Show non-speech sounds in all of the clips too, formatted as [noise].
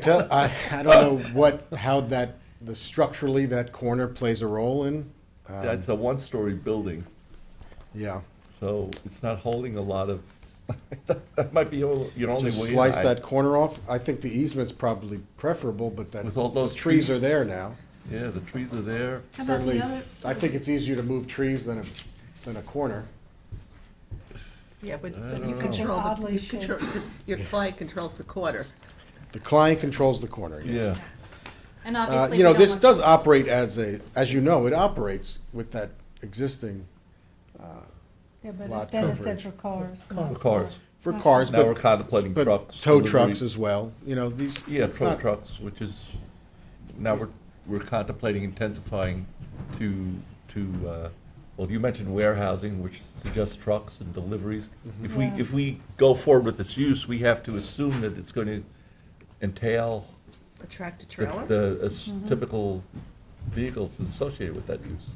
Tell, I, I don't know what, how that, the structurally, that corner plays a role in, That's Um, a one-story building, yeah. so it's not holding a lot of, [laughs] that might be all- your only way. Just slice in. that corner off, I think the easement's probably preferable, but that, With all the those trees are trees. there now. Yeah, the trees are there. How about Certainly, the other? I think it's easier to move trees than a, than a corner. Yeah, but I but don't you know. control, the Oddly you control, [laughs] your client controls the quarter. The client controls the corner, yes. Yeah, And Uh, obviously, you know, we don't this want- does operate as a, as you know, it operates with that existing, Yeah, but Lot instead, instead coverage. for cars. For cars. for cars, Now but. we're contemplating but trucks, Tow delivery. trucks as well, you know, these. yeah, it's tow not- trucks, which is, now we're, we're contemplating intensifying to, to, uh, well, you mentioned warehousing, which suggests trucks and deliveries. Mm-hmm. If we, Yeah. if we go forward with this use, we have to assume that it's going to entail A tractor the- trailer? the uh, s- Mm-hmm. typical vehicles associated with that use.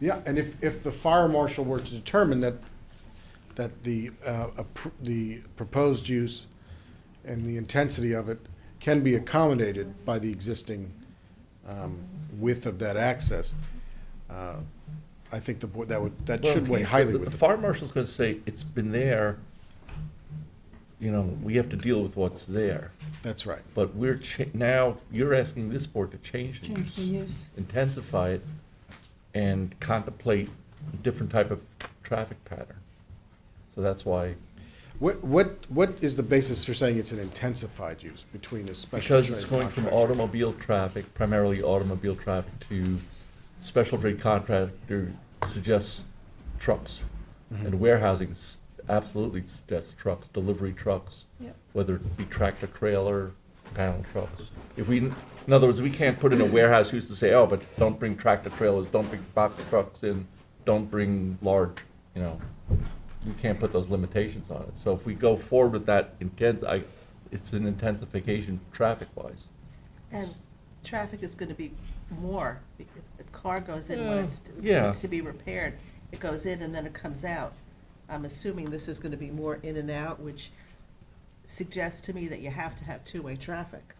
Yeah, and if, if the fire marshal were to determine that, that the, uh, appr- the proposed use and the intensity of it can be accommodated by the existing um, width of that access, uh, I think the board, that would, that should Well, weigh the- highly the- with The the. fire marshal's gonna say, it's been there, you know, we have to deal with what's there. That's right. But we're, cha- now, you're asking this board to change the Change the use, use. intensify it, and contemplate a different type of traffic pattern. So that's why, What, what, what is the basis for saying it's an intensified use between a special because trade it's going from contractor? automobile traffic, primarily automobile traffic, to special trade contractor suggests trucks. And warehousing s- absolutely suggests trucks, delivery trucks. Yep. whether it be tractor trailer, panel trucks. If we, in other words, we can't put in a warehouse use to say, oh, but don't bring tractor trailers, don't bring box trucks in, don't bring large, you know, we can't put those limitations on it. So if we go forward with that intent, I, it's an intensification traffic-wise. And traffic is gonna be more, if a car goes in when Yeah, it's, yeah. needs to be repaired, it goes in and then it comes out. I'm assuming this is gonna be more in and out, which suggests to me that you have to have two-way traffic.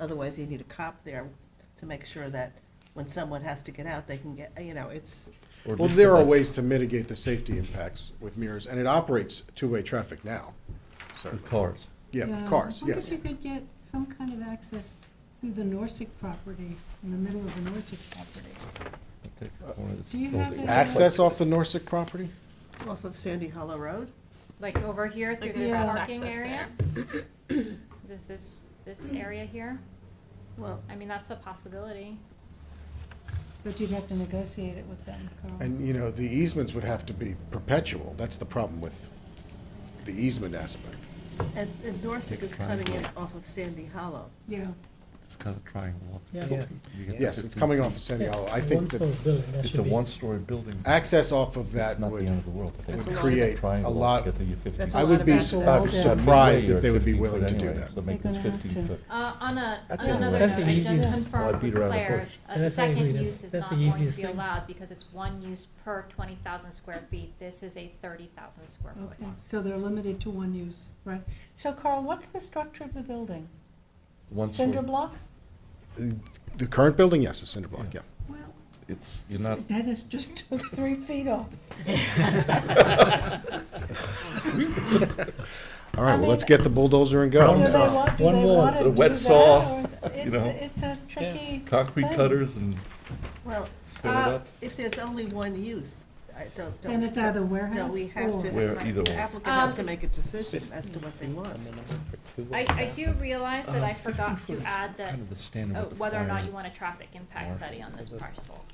Otherwise, you need a cop there to make sure that when someone has to get out, they can get, you know, it's, or at Well, least there are like- ways to mitigate the safety impacts with mirrors, and it operates two-way traffic now, certainly. With cars. Yeah, with cars, I wonder if yes. you could get some kind of access through the Norsec property, in the middle of the Norsec property. I think Uh, one of Do you those- have any- Access off the Norsec property? off of Sandy Hollow Road. Like over here through Like this there's parking access area? [coughs] This, this, this area here? Well, I mean, that's a possibility. But you'd have to negotiate it with them, Carl. And, you know, the easements would have to be perpetual. That's the problem with the easement aspect. And, and Norsec is coming in off of Sandy Hollow. Yeah, It's kind of triangle. Yeah. You get Yes, it's 15 coming off of Sandy Hollow. I think One that story building, that It's should a be- one-story building. access off of It's that not the would, end of the world, but they That's would a lot of- create a triangle to lot. get to your 15. That's a I lot would of be access. su- About It's Yeah. about surprised midway if they or would be 15 willing foot to do anyway, that. So make They're this gonna have 15 to. foot. Uh, on a, That's on the- another note, that's the I easiest- just Well, I confirmed with beat around the Claire, bush. And a that's how you second read it. use is That's not the going to easiest be thing. allowed because it's one use per twenty thousand square feet. This is a thirty thousand square foot okay, one. so they're limited to one use, right? So Carl, what's the structure of the building? One Cinder story. block? The current building, yes, is cinder block, yeah. Well, It's, you're [laughs] not, [laughs] Dennis just [laughs] took three feet off. All right, I well, mean- let's get the bulldozer and Do go. Problem they solved. want, do One they wall. wanna A do wet that, saw, or- you know. It's, it's a tricky. concrete thing. cutters and Well, set it Uh, up if there's only one use, I don't, don't. Then it's either warehouse Don't we have or- to, where either the one. applicant has to Um, make a decision as to what they want. I, I do realize Uh, that I forgot to add that, Kind of the standard oh, with the whether or not fire. you want a traffic impact Or- study on this parcel.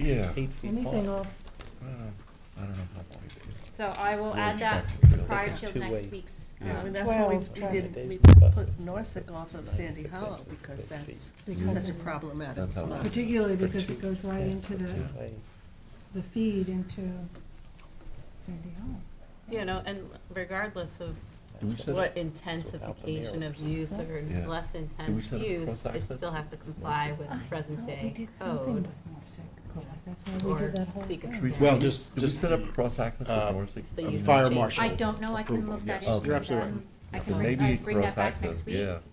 Yeah. Anything off I don't know how long it is. So I will Or add that traffic. prior Like to two next way. week's. You know, I um, mean, that's why we, Twelve we did, traffic. we put Norsec off of Sandy Hollow because that's because such a of it. problematic That's how- spot. Particularly For because it two. goes right into the, the feed into Sandy Hollow. You know, and regardless of Do we set what it- intensification of use or Yeah. less Did we intense set up use, it cross-access? still has to comply with present We day did something code. with Norsec Cross, that's why we did or that whole seek a thing. tree. Well, just, Did we just set up the cross-access uh, with Morrissey? The a use fire change. marshal. I don't know, I can approval, look that yes. into You're absolutely right. them. I So can bring, maybe I bring that back cross-access, next week. yeah.